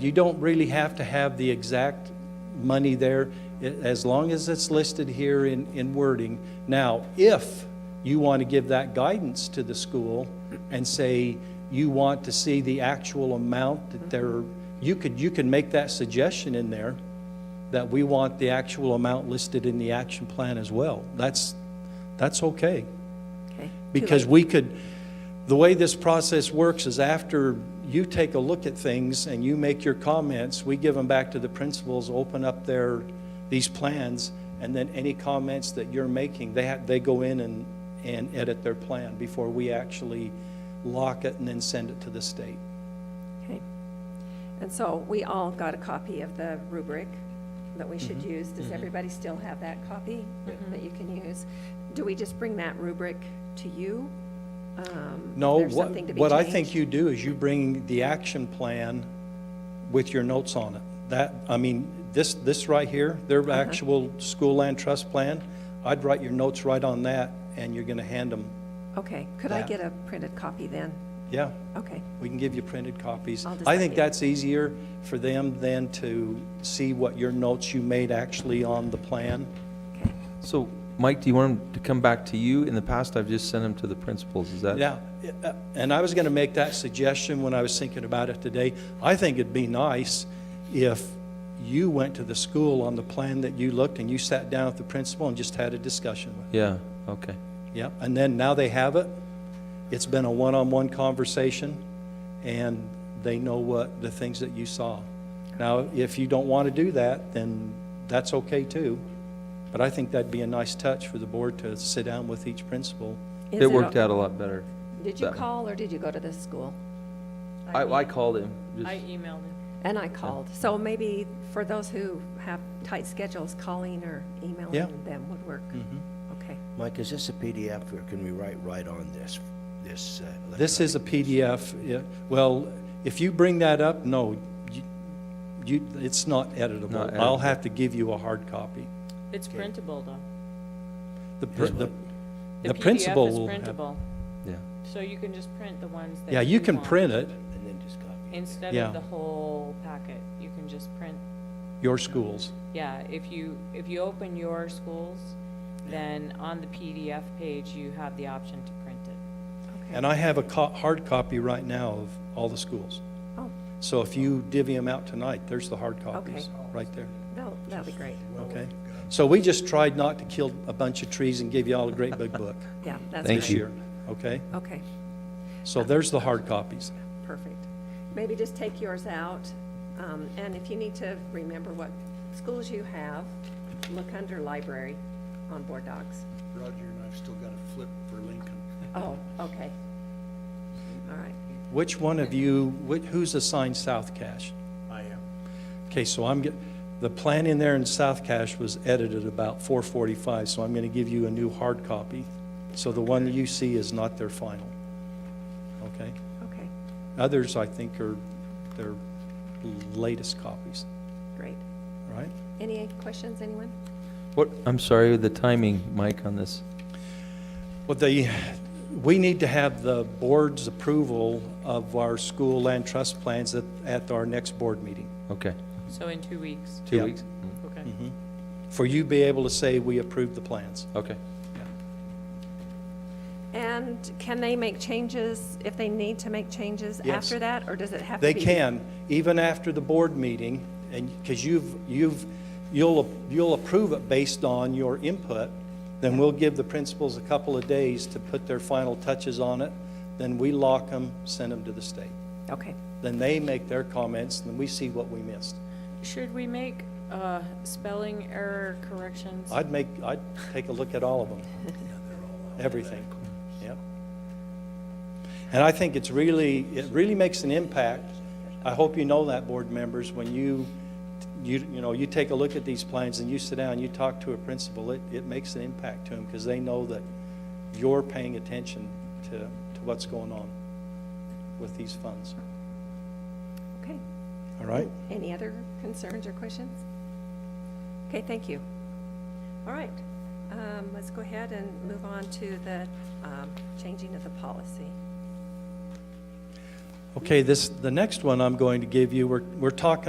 You don't really have to have the exact money there, i- as long as it's listed here in, in wording. Now, if you want to give that guidance to the school and say you want to see the actual amount that they're, you could, you can make that suggestion in there, that we want the actual amount listed in the action plan as well. That's, that's okay. Okay. Because we could, the way this process works is after you take a look at things and you make your comments, we give them back to the principals, open up their, these plans, and then any comments that you're making, they have, they go in and, and edit their plan before we actually lock it and then send it to the state. Okay. And so we all got a copy of the rubric that we should Mm-hmm. use. Does everybody still have that copy that you can use? Do we just bring that rubric to you? Um, No, there's what, something to be what I changed? think you do is you bring the action plan with your notes on it. That, I mean, this, this right here, their Uh-huh. actual school land trust plan, I'd write your notes right on that, and you're gonna hand them, Okay, could I that. get a printed copy then? yeah, Okay, we can give you printed copies. I'll just I let think you- that's easier for them than to see what your notes you made actually on the plan. okay. So, Mike, do you want them to come back to you? In the past, I've just sent them to the principals, is that? Yeah, uh, and I was going to make that suggestion when I was thinking about it today. I think it'd be nice if you went to the school on the plan that you looked and you sat down with the principal and just had a discussion with. Yeah, okay. him. Yeah, and then now they have it. It's been a one-on-one conversation, and they know what the things that you saw. Now, if you don't want to do that, then that's okay too. But I think that'd be a nice touch for the board to sit down with each principal. Is It worked o- out a lot better. Did you that way. call or did you go to the school? I, I called him, I just, emailed him. And I called. So maybe for those who have tight schedules, calling or Yeah. Mm-hmm. emailing them would work. Okay, Mike, is this a PDF or can we write right on this, this? uh, This is a electronic? PDF. Yeah, Well, if you bring that up, no, you- you, it's not Not editable. editable. I'll have to give you a hard copy. It's printable, though. The pr- The the PDF principal is will have. printable, yeah. so you can just print the ones that Yeah, you can want. print it, And then just copy. Instead Yeah. of the whole packet, you can just print, your schools. yeah, if you, if you open your schools, then on the PDF page, you have the option to print it. okay. And I have a co- hard copy right now of all the schools. Oh, So if you divvy them out tonight, there's the hard copies, Okay. right there. that'll, that'll be great. Okay? So we just tried not to kill a bunch of trees and give you all a great big book Yeah, that's Thank this great. you. year, okay? Okay. So there's the hard copies. Perfect. Maybe just take yours out, um, and if you need to remember what schools you have, look under library on board docs. Roger and I've still got a flip for Lincoln. Oh, okay. All right. Which one of you, wh- who's assigned South Cache? I am. Okay, so I'm, get- the plan in there in South Cache was edited about 4:45, so I'm going to give you a new hard copy. So the one that you see is not their final. Okay? Okay, Others, I think, are their latest copies, great. all right? Any questions, anyone? What, I'm sorry, the timing, Mike, on this? Well, the, we need to have the board's approval of our school land trust plans at, at our next board meeting. Okay, So in two weeks, two Yeah. weeks? okay. For you be able to say we approved the plans. Okay. And can they make changes if they need to make changes Yes. after that, or does it have to They be? can, even after the board meeting, and, because you've, you've, you'll, you'll approve it based on your input, then we'll give the principals a couple of days to put their final touches on it, then we lock them, send them to the state. Okay, Then they make their comments, and then we see what we missed. Should we make uh, spelling error corrections? I'd make, I'd take a look at all of them. Everything, yep. And I think it's really, it really makes an impact. I hope you know that, board members, when you, you, you know, you take a look at these plans and you sit down, you talk to a principal, it, it makes an impact to them because they know that you're paying attention to, to what's going on with these funds, okay. all right? Any other concerns or questions? Okay, thank you. All right, um, let's go ahead and move on to the um, changing of the policy. Okay, this, the next one I'm going to give you, we're, we're talking